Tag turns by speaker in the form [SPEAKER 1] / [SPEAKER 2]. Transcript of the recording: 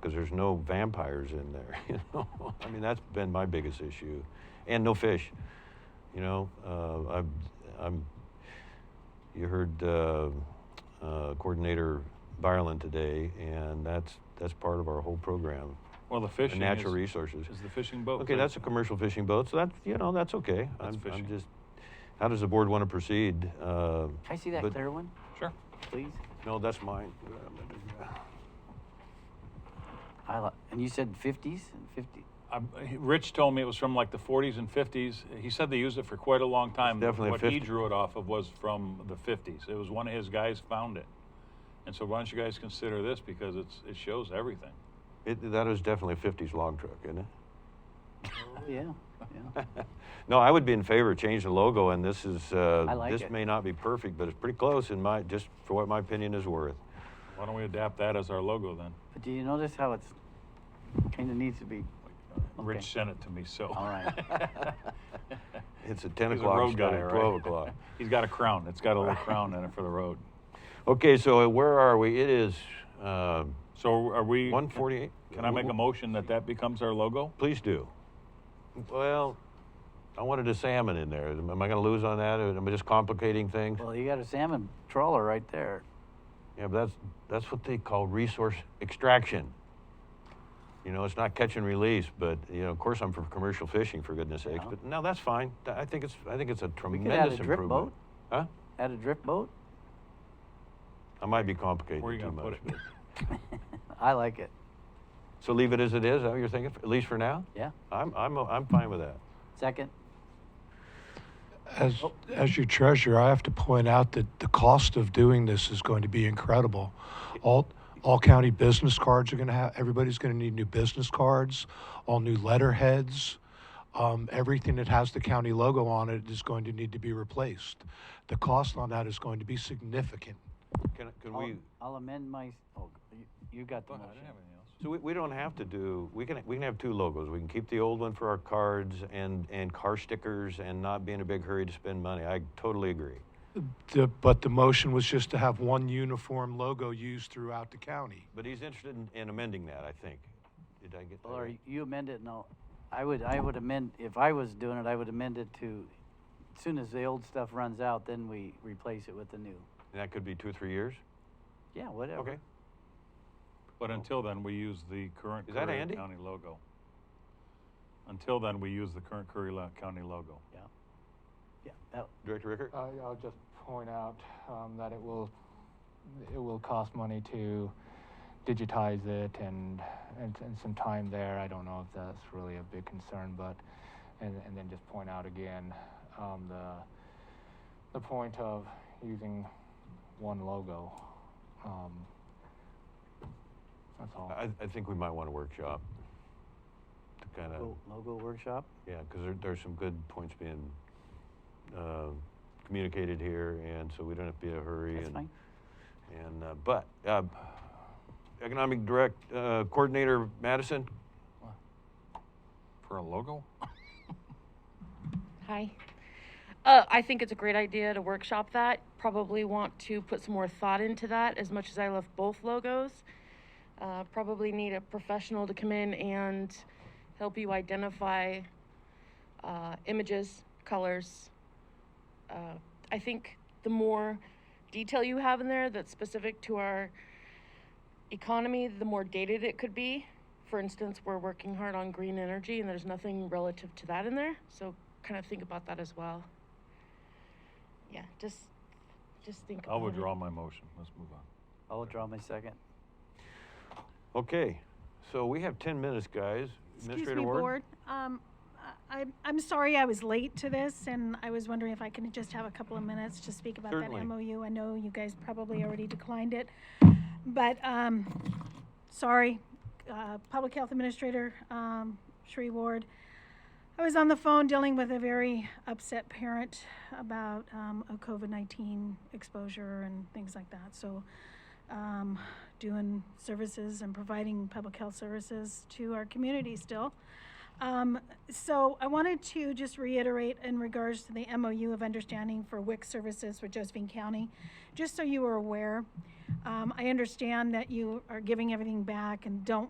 [SPEAKER 1] because there's no vampires in there. You know, I mean that's been my biggest issue, and no fish. You know, uh, I'm, I'm. You heard uh, uh, coordinator Byerland today, and that's that's part of our whole program.
[SPEAKER 2] Well, the fishing
[SPEAKER 1] natural
[SPEAKER 2] is-
[SPEAKER 1] resources.
[SPEAKER 2] is the fishing boat.
[SPEAKER 1] Okay,
[SPEAKER 2] thing.
[SPEAKER 1] that's a commercial fishing boat, so that's you know that's okay.
[SPEAKER 2] Oh, That's
[SPEAKER 1] I'm, I'm
[SPEAKER 2] fishing.
[SPEAKER 1] just. How does the board want to proceed? Uh,
[SPEAKER 3] Can I see that
[SPEAKER 1] but-
[SPEAKER 3] clear one,
[SPEAKER 2] Sure.
[SPEAKER 3] please?
[SPEAKER 1] No, that's mine.
[SPEAKER 3] I li- and you said 50s and 50.
[SPEAKER 2] I, Rich told me it was from like the 40s and 50s. He said they used it for quite a long time.
[SPEAKER 1] definitely
[SPEAKER 2] what he
[SPEAKER 1] 50.
[SPEAKER 2] drew it off of was from the 50s. It was one of his guys found it, and so why don't you guys consider this because it's it shows everything.
[SPEAKER 1] It, that is definitely a 50s log truck, isn't
[SPEAKER 3] Oh, yeah, yeah.
[SPEAKER 1] it? no, I would be in favor of changing the logo, and this is uh,
[SPEAKER 3] I like
[SPEAKER 1] this
[SPEAKER 3] it.
[SPEAKER 1] may not be perfect, but it's pretty close in my just for what my opinion is worth.
[SPEAKER 2] Why don't we adapt that as our logo then?
[SPEAKER 3] But do you notice how it's kind of needs to be? Okay.
[SPEAKER 2] Rich sent it to me, so.
[SPEAKER 3] All right.
[SPEAKER 1] It's a 10
[SPEAKER 2] He's
[SPEAKER 1] o'clock
[SPEAKER 2] road
[SPEAKER 1] instead
[SPEAKER 2] guy,
[SPEAKER 1] of
[SPEAKER 2] right?
[SPEAKER 1] 12 o'clock.
[SPEAKER 2] He's got a crown. It's got a little crown in it for the road.
[SPEAKER 1] Okay, so where are we? It is uh,
[SPEAKER 2] So are we?
[SPEAKER 1] 148.
[SPEAKER 2] Can I make a motion that that becomes our logo?
[SPEAKER 1] Please do. Well, I wanted a salmon in there. Am I going to lose on that? Am I just complicating things?
[SPEAKER 3] Well, you got a salmon trawler right there.
[SPEAKER 1] Yeah, but that's that's what they call resource extraction. You know, it's not catch and release, but you know, of course, I'm for commercial fishing, for goodness' sakes.
[SPEAKER 3] Yeah.
[SPEAKER 1] But no, that's fine. Th- I think it's I think it's a
[SPEAKER 3] We
[SPEAKER 1] tremendous
[SPEAKER 3] could add a drip
[SPEAKER 1] improvement.
[SPEAKER 3] boat.
[SPEAKER 1] Huh?
[SPEAKER 3] Add a drift boat.
[SPEAKER 1] I might be complicating
[SPEAKER 2] Where are you
[SPEAKER 1] too
[SPEAKER 2] gonna put
[SPEAKER 1] much.
[SPEAKER 2] it?
[SPEAKER 1] but-
[SPEAKER 3] I like it.
[SPEAKER 1] So leave it as it is. Is that what you're thinking? At least for now.
[SPEAKER 3] Yeah.
[SPEAKER 1] I'm I'm I'm fine with that.
[SPEAKER 3] Second.
[SPEAKER 4] As, as your treasurer, I have to point out that the cost of doing this is going to be incredible. All, all county business cards are going to have, everybody's going to need new business cards, all new letterheads. Um, everything that has the county logo on it is going to need to be replaced. The cost on that is going to be significant.
[SPEAKER 1] Can can
[SPEAKER 3] I'll-
[SPEAKER 1] we?
[SPEAKER 3] I'll amend my, oh, you, you got the motion.
[SPEAKER 1] So we, we don't have to do, we can, we can have two logos. We can keep the old one for our cards and, and car stickers and not be in a big hurry to spend money. I totally agree.
[SPEAKER 4] The, but the motion was just to have one uniform logo used throughout the county.
[SPEAKER 1] But he's interested in, in amending that, I think. Did I get that?
[SPEAKER 3] Well, or
[SPEAKER 1] right?
[SPEAKER 3] you amend it and I'll, I would, I would amend, if I was doing it, I would amend it to, as soon as the old stuff runs out, then we replace it with the new.
[SPEAKER 1] And that could be two or three years?
[SPEAKER 3] Yeah, whatever.
[SPEAKER 1] Okay.
[SPEAKER 2] But until then, we use the current
[SPEAKER 1] Is that
[SPEAKER 2] Curry
[SPEAKER 1] Andy?
[SPEAKER 2] County logo. Until then, we use the current Curry Lo- County logo.
[SPEAKER 3] Yeah. Yeah, that,
[SPEAKER 1] Director Ricker?
[SPEAKER 2] Uh,
[SPEAKER 5] I, I'll just point out um, that it will it will cost money to digitize it and, and and some time there. I don't know if that's really a big concern, but and and then just point out again um, the the point of using one logo. Um, that's all.
[SPEAKER 1] I, I think we might want a workshop to kind of,
[SPEAKER 3] Lo- logo workshop?
[SPEAKER 1] yeah, because there, there's some good points being, uh, communicated here and so we don't have to be in a hurry.
[SPEAKER 3] That's
[SPEAKER 1] and-
[SPEAKER 3] fine.
[SPEAKER 1] And, uh, but, uh, Economic Direct, uh, Coordinator Madison,
[SPEAKER 2] For a logo?
[SPEAKER 6] Hi. Uh, I think it's a great idea to workshop that. Probably want to put some more thought into that as much as I love both logos. Uh, probably need a professional to come in and help you identify uh, images, colors. Uh, I think the more detail you have in there that's specific to our economy, the more dated it could be. For instance, we're working hard on green energy, and there's nothing relative to that in there. So kind of think about that as well. Yeah, just just think.
[SPEAKER 2] I'll
[SPEAKER 6] about it.
[SPEAKER 2] withdraw my motion. Let's move on.
[SPEAKER 3] I'll withdraw my second.
[SPEAKER 1] Okay, so we have 10 minutes, guys.
[SPEAKER 7] Excuse
[SPEAKER 1] Administrator
[SPEAKER 7] me,
[SPEAKER 1] Ward?
[SPEAKER 7] Board. Um, I, I'm- I'm sorry I was late to this, and I was wondering if I can just have a couple of minutes to speak about that
[SPEAKER 1] Certainly.
[SPEAKER 7] MOU. I know you guys probably already declined it, but, um, sorry, uh, Public Health Administrator, um, Shree Ward. I was on the phone dealing with a very upset parent about, um, a COVID-19 exposure and things like that, so, um, doing services and providing public health services to our community still. Um, so I wanted to just reiterate in regards to the MOU of understanding for WIC services for Josephine County, just so you are aware. Um, I understand that you are giving everything back and don't